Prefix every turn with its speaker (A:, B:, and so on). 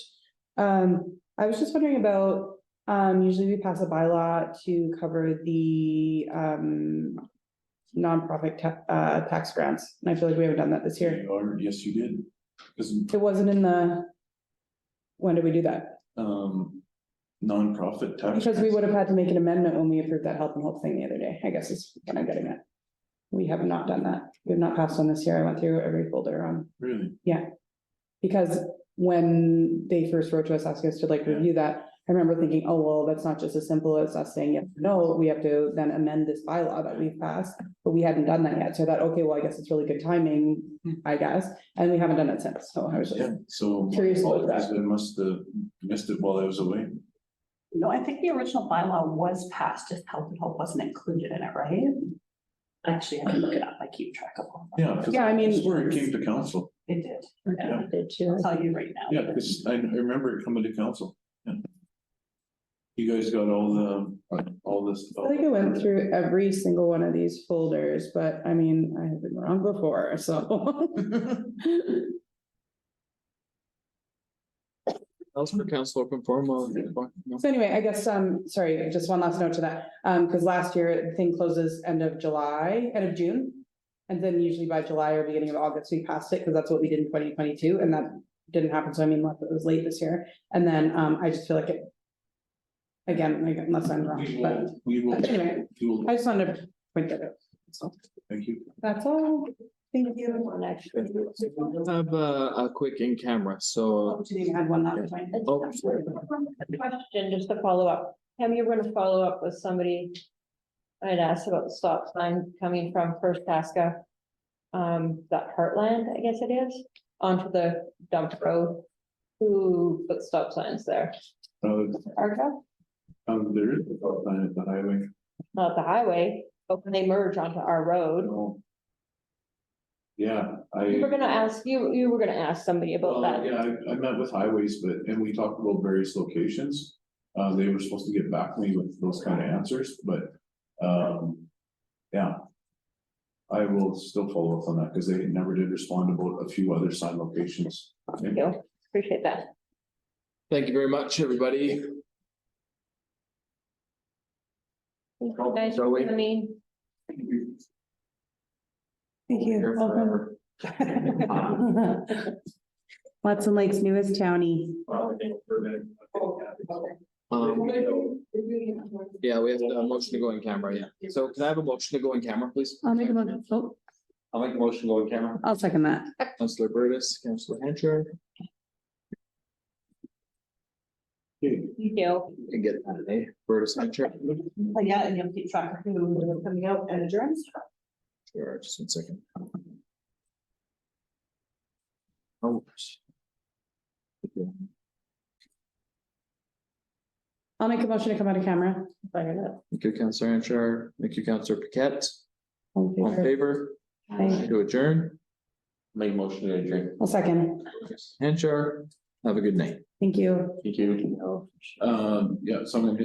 A: Um, I was just wondering about, um, usually we pass a bylaw to cover the, um, nonprofit ta- uh, tax grants, and I feel like we haven't done that this year.
B: You are- Yes, you did. Because,
A: It wasn't in the, when did we do that?
B: um, nonprofit tax.
A: Because we would have had to make an amendment when we approved that health and health thing the other day, I guess is what I'm getting at. We have not done that. We've not passed on this year. I went through every folder on
B: Really?
A: Because when they first wrote to us asking us to like
B: Yeah.
A: review that, I remember thinking, oh, well, that's not just as simple as us saying, yes, or no, we have to then amend this bylaw that we've passed. But we hadn't done that yet, so I thought, okay, well, I guess it's really good timing, I guess, and we haven't done it since, so I was just,
B: Yeah, so. my
A: Curious about
B: apologies,
A: that.
B: I must have missed it while I was away.
C: No, I think the original bylaw was passed, just health and hope wasn't included in it, right? Actually, I can look it up. I keep track of all. of them.
B: Yeah. 'cause
A: Yeah, I mean-
B: That's where it came to council.
C: It did.
B: Yeah.
D: Did too.
C: I'll tell you right now.
B: Yeah, because I I remember it coming to council. Yeah. You guys got all the, all this.
A: I think I went through every single one of these folders, but I mean, I have been wrong before, so.
E: Else for council open forum, uh,
A: So anyway, I guess, um, sorry, just one last note to that, um, because last year the thing closes end of July, end of June. And then usually by July or beginning of August, we passed it because that's what we did in twenty twenty-two and that didn't happen. So I mean, unless it was late this year. And then, um, I just feel like it. Again, like, unless I'm
B: We
A: wrong, but
B: will, we will,
A: Anyway.
B: we will,
A: I just wanted to point that out. So
B: thank you.
A: that's all.
C: Thank you. actually.
E: I have a, a quick in camera, so.
A: Oh, Didn't even add one last time.
E: Oh,
D: Question, just to follow up, Pam, you were gonna follow up with somebody. I had asked about the stop sign coming from First Pasca. Um, that Heartland, I guess it is, onto the dump road. Who put stop signs there?
B: Uh,
D: Arca,
B: um, there is a stop sign at the highway.
D: not the highway, but when they merge onto our road.
B: Oh. Yeah, I.
D: We were gonna ask, you, you were gonna ask somebody
B: Well,
D: about that.
B: Yeah, I, I met with highways, but, and we talked about various locations. Uh, they were supposed to get back to me with those kind of answers, but, um, yeah. I will still follow up on that, because they never did respond about a few other sign locations.
D: Thank you. Appreciate that.
E: Thank you very much, everybody.
D: Thank you guys for
E: Zoe.
D: coming.
A: Thank
E: Here
A: you.
E: for-
A: Watson Lake's newest townie.
E: um, Yeah, we have a motion to go in camera, yeah. So can I have a motion to go in camera, please?
A: I'll make a motion. Oh,
E: I'll make a motion to go in camera.
A: I'll second that.
E: Councillor Burgess, Councillor Hancher,
B: Okay,
D: You do.
E: and get that, eh? Burgess, Hancher.
C: But Yeah, and you'll keep track of who was coming out and adjourns.
E: Sure, just one second. Oh. Okay.
A: I'll make a motion to come out of camera.
E: Thank you, Councillor Hancher. Thank you, Councillor Paquette.
A: All in
E: All in
A: favor?
E: favor?
A: Aye.
E: To adjourn? Make a motion to adjourn.
A: I'll second.
E: Hanchar, have a good night.
A: Thank you.
E: Thank you.
B: um, yeah, so I'm gonna hit